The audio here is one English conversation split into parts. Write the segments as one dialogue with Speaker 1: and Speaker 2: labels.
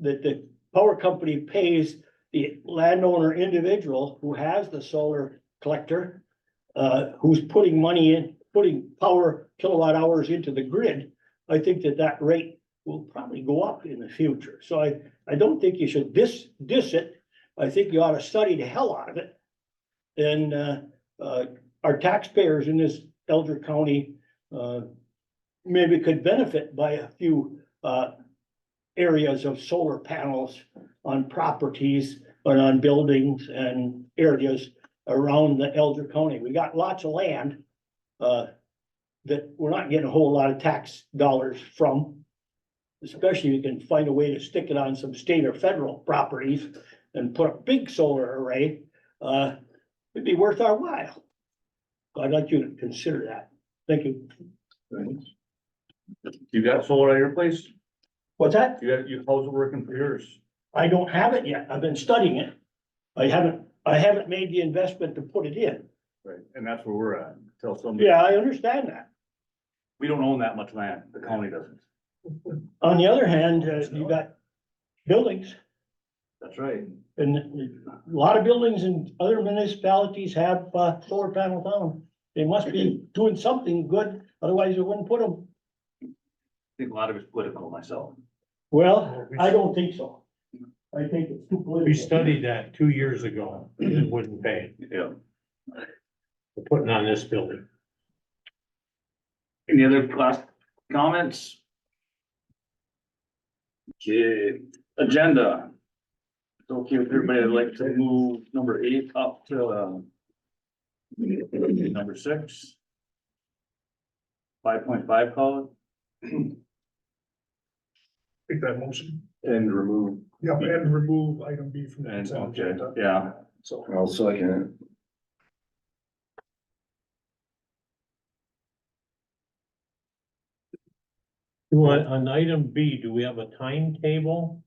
Speaker 1: that the power company pays the landowner individual who has the solar collector, uh, who's putting money in, putting power kilowatt hours into the grid, I think that that rate will probably go up in the future. So I, I don't think you should diss, diss it. I think you ought to study the hell out of it. And, uh, uh, our taxpayers in this Elder County, uh, maybe could benefit by a few, uh, areas of solar panels on properties and on buildings and areas around the Elder County. We got lots of land, uh, that we're not getting a whole lot of tax dollars from. Especially you can find a way to stick it on some state or federal properties and put a big solar array, uh, it'd be worth our while. So I'd like you to consider that. Thank you.
Speaker 2: You got solar at your place?
Speaker 1: What's that?
Speaker 2: You got, you, how's it working for yours?
Speaker 1: I don't have it yet. I've been studying it. I haven't, I haven't made the investment to put it in.
Speaker 2: Right, and that's where we're at, tell somebody,
Speaker 1: Yeah, I understand that.
Speaker 2: we don't own that much land, the county doesn't.
Speaker 1: On the other hand, uh, you got buildings
Speaker 2: That's right.
Speaker 1: and a lot of buildings in other municipalities have, uh, solar panels on. They must be doing something good, otherwise you wouldn't put them.
Speaker 2: I think a lot of it's political myself.
Speaker 1: Well, I don't think so. I think it's too political.
Speaker 3: We studied that two years ago, and it wouldn't pay,
Speaker 2: Yeah.
Speaker 3: for putting on this building.
Speaker 2: Any other last comments? Okay, agenda. It's okay with everybody, I'd like to move number eight up to, um, number six. Five point five call
Speaker 4: Take that motion.
Speaker 2: it, and remove,
Speaker 4: Yeah, and remove item B from the
Speaker 2: and,
Speaker 4: consent
Speaker 2: okay,
Speaker 4: agenda.
Speaker 2: yeah,
Speaker 4: So
Speaker 5: I'll second
Speaker 3: Well, on item B, do we have a timetable?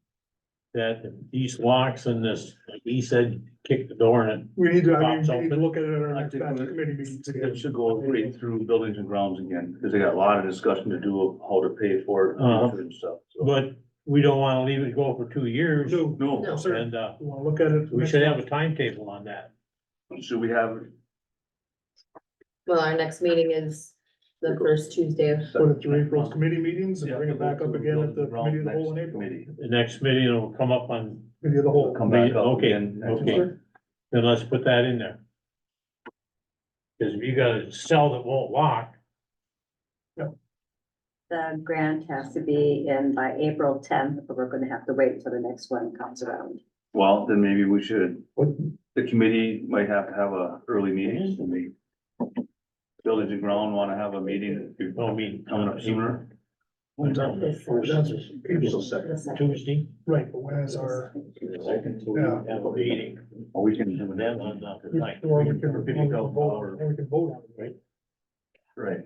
Speaker 3: That these locks and this, like he said, kick the door and
Speaker 4: we need to, I mean,
Speaker 3: Box
Speaker 4: we need to
Speaker 3: open.
Speaker 4: look at it at our
Speaker 2: I
Speaker 4: next
Speaker 2: think
Speaker 4: batch
Speaker 2: we-
Speaker 4: committee meeting
Speaker 2: it
Speaker 4: together.
Speaker 2: should go right through buildings and grounds again, because they got a lot of discussion to do of how to pay for it
Speaker 3: Uh-huh.
Speaker 2: and stuff,
Speaker 3: it,
Speaker 2: so.
Speaker 3: but we don't wanna leave it go for two years.
Speaker 4: No,
Speaker 2: No,
Speaker 4: No. sir.
Speaker 3: And, uh,
Speaker 4: we wanna look at it.
Speaker 3: we should have a timetable on that.
Speaker 2: should we have
Speaker 6: Well, our next meeting is the first Tuesday of,
Speaker 4: Put it through April's committee meetings and
Speaker 2: Yeah,
Speaker 4: bring
Speaker 2: we'll
Speaker 4: it
Speaker 2: go
Speaker 4: back up
Speaker 2: through
Speaker 4: again at
Speaker 2: buildings
Speaker 4: the
Speaker 2: and grounds
Speaker 4: committee of the whole in
Speaker 2: next
Speaker 4: April,
Speaker 2: committee.
Speaker 3: The next meeting will come up on,
Speaker 4: committee of the whole.
Speaker 2: Come back up
Speaker 3: Okay,
Speaker 2: again next
Speaker 3: okay.
Speaker 2: month.
Speaker 3: then let's put that in there. Cause if you got a cell that won't lock,
Speaker 7: The grant has to be in by April tenth, but we're gonna have to wait until the next one comes around.
Speaker 2: Well, then maybe we should,
Speaker 4: What-
Speaker 2: the committee might have to have a early meeting. and they- Buildings and ground wanna have a meeting
Speaker 3: no, I mean.
Speaker 2: coming up sooner.
Speaker 4: When's our- that's April
Speaker 7: The second.
Speaker 3: Tuesday.
Speaker 4: Right, but when is our,
Speaker 3: Second, we
Speaker 4: Yeah.
Speaker 3: have a meeting.
Speaker 2: Or we can do
Speaker 3: And
Speaker 2: that
Speaker 3: then
Speaker 2: on
Speaker 3: on
Speaker 2: that.
Speaker 3: the night.
Speaker 4: or we can, or we
Speaker 3: Fifty
Speaker 4: can
Speaker 3: thousand
Speaker 4: vote,
Speaker 3: dollar
Speaker 4: or we can vote on it, right?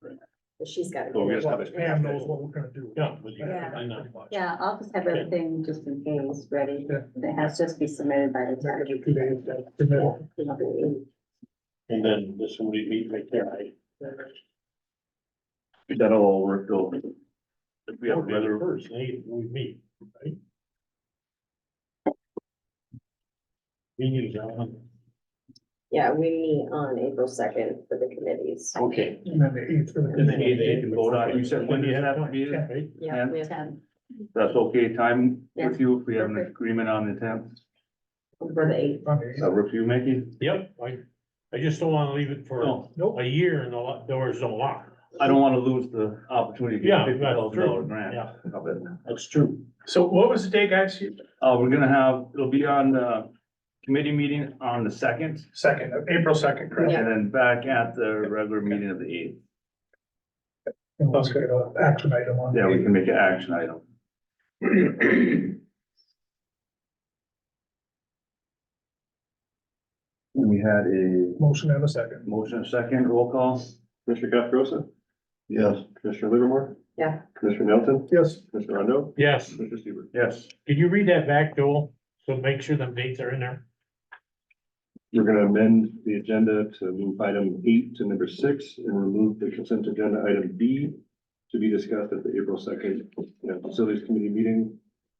Speaker 2: Right.
Speaker 7: But she's gotta.
Speaker 2: Well, we
Speaker 7: do it.
Speaker 2: just have
Speaker 4: Well,
Speaker 2: it.
Speaker 4: Pam knows what we're gonna do.
Speaker 3: Yeah, but you-
Speaker 7: Yeah.
Speaker 3: I know.
Speaker 7: Yeah, I'll just have everything just in case ready.
Speaker 4: Yeah.
Speaker 7: It has to just be submitted by the
Speaker 4: That
Speaker 7: time.
Speaker 4: could be two days, that's the middle.
Speaker 3: And then this one we meet right there, I.
Speaker 2: That'll all work though. If we have
Speaker 3: the
Speaker 2: weather,
Speaker 3: First, they, we meet, right? Meetings on,
Speaker 6: yeah, we meet on April second for the committees.
Speaker 3: okay.
Speaker 4: And then the eighth for the.
Speaker 3: And then
Speaker 2: eighth, they can vote on it. You said when do you have that meeting?
Speaker 3: Right?
Speaker 7: Yeah, we have
Speaker 2: Ten. that's okay, time with you, if we have an
Speaker 7: Perfect.
Speaker 2: agreement on the tenth,
Speaker 7: for the eighth.
Speaker 4: On the eighth.
Speaker 2: that work for you, Mickey?
Speaker 3: Yep, I, I just don't wanna leave it for
Speaker 2: No,
Speaker 4: Nope,
Speaker 3: a year and the lo- doors don't lock.
Speaker 2: I don't wanna lose the opportunity to
Speaker 3: Yeah,
Speaker 2: get fifty
Speaker 3: that's
Speaker 2: thousand dollar
Speaker 3: true.
Speaker 2: grant.
Speaker 3: Yeah,
Speaker 2: of it.
Speaker 3: that's true.
Speaker 8: So what was the date, guys?
Speaker 2: Uh, we're gonna have, it'll be on the committee meeting on the second,
Speaker 8: Second, April second, correct?
Speaker 2: and then back at the regular meeting of the eighth.
Speaker 4: and let's get an action item on. the
Speaker 2: Yeah, we
Speaker 4: eighth.
Speaker 2: can make an action item. And we had a
Speaker 4: Motion and a second.
Speaker 2: motion and second roll call.
Speaker 9: Commissioner Caprosa,
Speaker 5: it. Yes.
Speaker 9: Commissioner Livermore,
Speaker 6: Yeah,
Speaker 9: Commissioner Nelson,
Speaker 4: Yes,
Speaker 9: Commissioner Rondo,
Speaker 3: Yes,
Speaker 9: Commissioner Seaver.
Speaker 2: Yes,
Speaker 3: can you read that back, Joel? So make sure them dates are in there.
Speaker 9: We're gonna amend the agenda to move item eight to number six and remove the consent agenda item B to be discussed at the April second, you know, facilities committee meeting